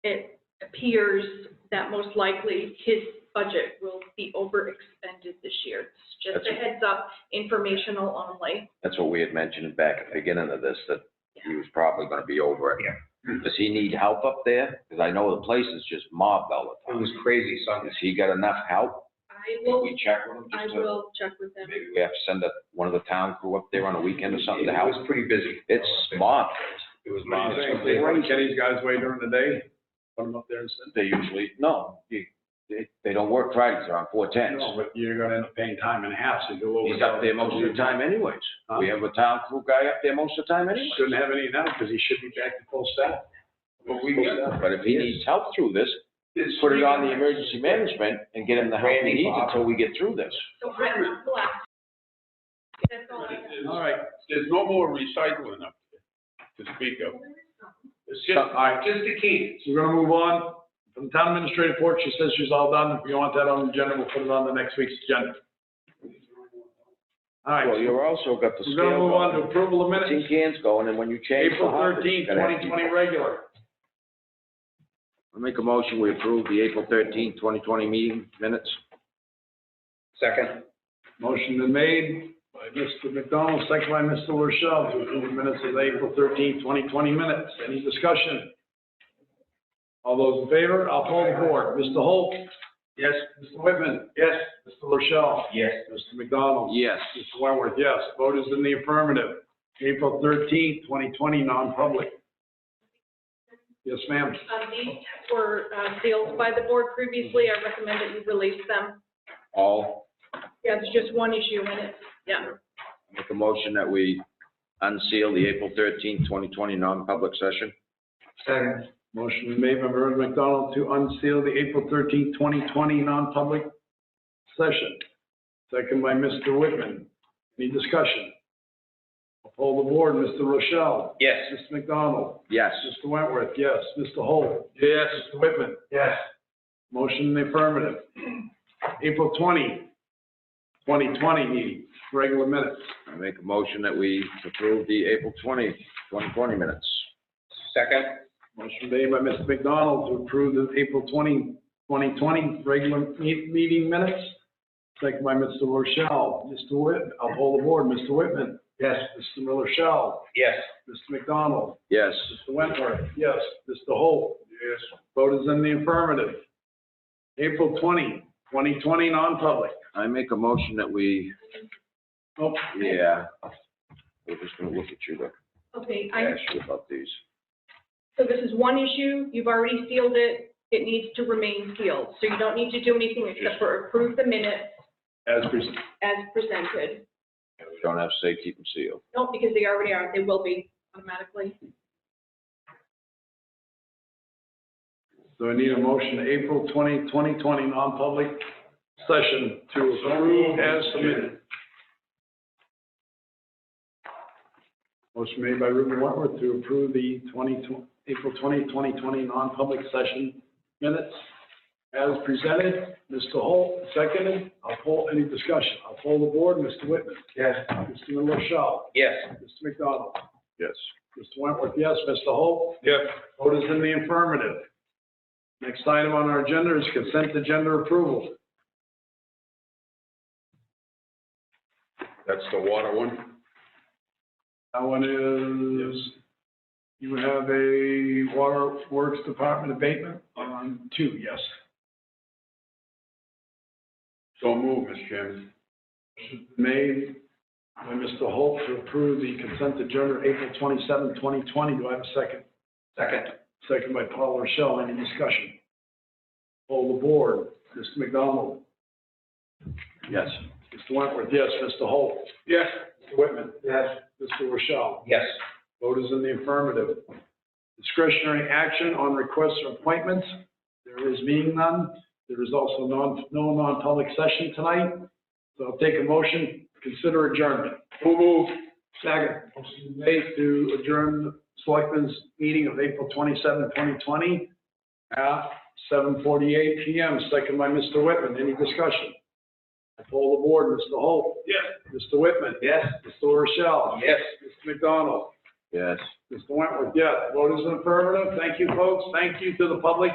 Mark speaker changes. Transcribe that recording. Speaker 1: it appears that most likely his budget will be overexpended this year. It's Just a
Speaker 2: That's-
Speaker 1: heads up, informational only.
Speaker 2: That's what we had mentioned back at the beginning of this, that he was probably gonna be over it. Does he need help up there? Cause I know the place is just mobbed all the
Speaker 3: It
Speaker 2: time.
Speaker 3: was crazy Sunday.
Speaker 2: Has he got enough help?
Speaker 1: I
Speaker 2: Can
Speaker 1: will,
Speaker 2: we check with him?
Speaker 1: I
Speaker 2: just to-
Speaker 1: will check with them.
Speaker 2: Maybe we have to send up one of the town crew up there on a weekend or something to help.
Speaker 3: It was pretty busy.
Speaker 2: It's smart.
Speaker 3: It was.
Speaker 4: What do you think? They run Kenny's guys away during the day, put them up there and send.
Speaker 2: They usually, no, you- they, they don't work Fridays, they're on four tens.
Speaker 4: No, but you're gonna end up paying time and a half, so you'll.
Speaker 2: He's up there most of the time anyways. We have a town crew guy up there most of the time anyways.
Speaker 4: Shouldn't have any now, because he should be back to full staff.
Speaker 3: But we got-
Speaker 2: But if he needs help through this, put it on the emergency management and get him the help he needs until we get through this.
Speaker 1: So I will collect. That's all I have.
Speaker 4: All right,
Speaker 5: There's no more recycling up there to speak of. It's
Speaker 4: all right,
Speaker 3: Just the keys.
Speaker 4: so we're gonna move on. From town administrative report, she says she's all done. If you want that on the agenda, we'll put it on the next week's agenda. All right,
Speaker 2: Well, you've also got the
Speaker 4: we're gonna
Speaker 2: scale
Speaker 4: move on to
Speaker 2: going,
Speaker 4: approval of
Speaker 2: tin
Speaker 4: minutes,
Speaker 2: cans going, and when you change. the
Speaker 4: April
Speaker 2: hot, it's
Speaker 4: thirteenth,
Speaker 2: gonna have to be-
Speaker 4: twenty twenty regular.
Speaker 2: I Make a motion, we approve the April thirteenth, twenty twenty meeting minutes.
Speaker 3: Second.
Speaker 4: Motion been made by Mr. McDonald, second by Mr. Rochelle, to approve the minutes of the April thirteenth, twenty twenty minutes. Any discussion? All those in favor, I'll poll the board. Mr. Holt? Yes. Mr. Whitman? Yes. Mr. Rochelle?
Speaker 3: Yes.
Speaker 4: Mr. McDonald?
Speaker 2: Yes.
Speaker 4: Mr. Wentworth, yes. Vote is in the affirmative. April thirteenth, twenty twenty, non-public. Yes, ma'am.
Speaker 1: Um, these were, uh, sealed by the board previously. I recommend that you release them.
Speaker 2: All,
Speaker 1: Yeah, it's just one issue in it. Yeah.
Speaker 2: make a motion that we unseal the April thirteenth, twenty twenty non-public session.
Speaker 3: Second.
Speaker 4: Motion been made by Reverend McDonald to unseal the April thirteenth, twenty twenty non-public session. Second by Mr. Whitman. Any discussion? I'll poll the board. Mr. Rochelle?
Speaker 3: Yes.
Speaker 4: Mr. McDonald?
Speaker 2: Yes.
Speaker 4: Mr. Wentworth, yes. Mr. Holt? Yes. Mr. Whitman?
Speaker 3: Yes.
Speaker 4: Motion in the affirmative. April 20, 2020 meeting, regular minutes.
Speaker 2: I make a motion that we approve the April twentieth, twenty twenty minutes.
Speaker 3: Second.
Speaker 4: Motion made by Mr. McDonald to approve the April 20, 2020 regular me- meeting minutes. Second by Mr. Rochelle. Mr. Whit, I'll poll the board. Mr. Whitman.
Speaker 3: Yes.
Speaker 4: Mr. Rochelle.
Speaker 3: Yes.
Speaker 4: Mr. McDonald.
Speaker 2: Yes.
Speaker 4: Mr. Wentworth. Yes. Mr. Holt. Yes. Vote is in the affirmative. April 20, 2020 non-public.
Speaker 2: I make a motion that we,
Speaker 4: Nope.
Speaker 2: yeah, we're just gonna look at you to
Speaker 1: Okay, I,
Speaker 2: ask you about these.
Speaker 1: so this is one issue. You've already sealed it. It needs to remain sealed. So you don't need to do anything except for approve the minutes
Speaker 4: As presented.
Speaker 1: as presented.
Speaker 2: We don't have to say keep them sealed.
Speaker 1: No, because they already are, they will be automatically.
Speaker 4: So I need a motion, April 20, 2020 non-public session to approve as submitted. Motion made by Ruben Wentworth to approve the 20, April 20, 2020 non-public session minutes as presented. Mr. Holt, seconded. I'll poll, any discussion? I'll poll the board. Mr. Whitman.
Speaker 3: Yes.
Speaker 4: Mr. Rochelle.
Speaker 3: Yes.
Speaker 4: Mr. McDonald.
Speaker 2: Yes.
Speaker 4: Mr. Wentworth, yes. Mr. Holt? Yes. Vote is in the affirmative. Next item on our agenda is consent agenda approval.
Speaker 5: That's the water one.
Speaker 4: That one is, you have a Water Works Department abatement on two, yes.
Speaker 5: So move, Mr. Chairman.
Speaker 4: Made by Mr. Holt to approve the consent agenda April 27, 2020. Do I have a second?
Speaker 3: Second.
Speaker 4: Second by Paul Rochelle. Any discussion? Poll the board. Mr. McDonald?
Speaker 2: Yes.
Speaker 4: Mr. Wentworth, yes. Mr. Holt?
Speaker 5: Yes.
Speaker 4: Mr. Whitman?
Speaker 3: Yes.
Speaker 4: Mr. Rochelle?
Speaker 3: Yes.
Speaker 4: Vote is in the affirmative. Discretionary action on requests or appointments. There is being none. There is also non, no non-public session tonight. So I'll take a motion, consider adjournment.
Speaker 5: So move.
Speaker 4: Second. Motion made to adjourn the Selectmen's meeting of April 27, 2020 at 7:48 PM, second by Mr. Whitman. Any discussion? I poll the board. Mr. Holt?
Speaker 5: Yes.
Speaker 4: Mr. Whitman?
Speaker 3: Yes.
Speaker 4: Mr. Rochelle?
Speaker 3: Yes.
Speaker 4: Mr. McDonald?
Speaker 2: Yes.
Speaker 4: Mr. Wentworth, yes. Vote is affirmative. Thank you, folks. Thank you to the public.